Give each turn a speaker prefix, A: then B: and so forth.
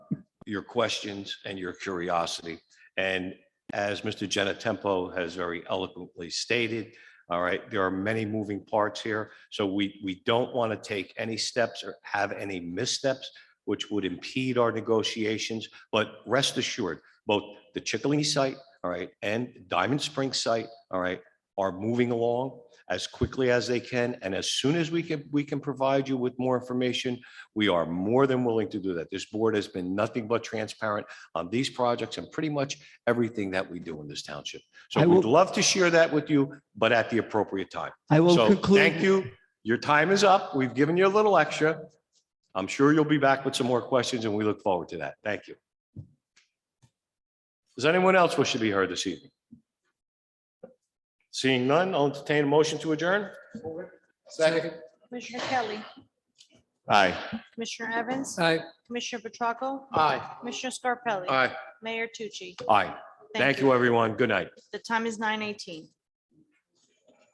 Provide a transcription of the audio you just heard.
A: your questions and your curiosity. And as Mr. Genatempo has very eloquently stated, all right, there are many moving parts here. So we, we don't want to take any steps or have any missteps which would impede our negotiations. But rest assured, both the Chickaline site, all right, and Diamond Spring site, all right, are moving along as quickly as they can. And as soon as we can, we can provide you with more information, we are more than willing to do that. This board has been nothing but transparent on these projects and pretty much everything that we do in this township. So
B: I
A: we'd
B: will-
A: love to share that with you, but at the appropriate time.
B: I will
A: So thank
B: conclude,
A: you. Your time is up. We've given you a little extra. I'm sure you'll be back with some more questions and we look forward to that. Thank you. Does anyone else wish to be heard this evening? Seeing none, I'll entertain a motion to adjourn.
C: Second.
D: Commissioner Kelly.
A: Aye.
D: Commissioner Evans.
C: Aye.
D: Commissioner Petracca.
C: Aye.
D: Commissioner Scarpelli.
A: Aye.
D: Mayor Tucci.
A: Aye. Thank you, everyone. Good night.
D: The time is nine eighteen.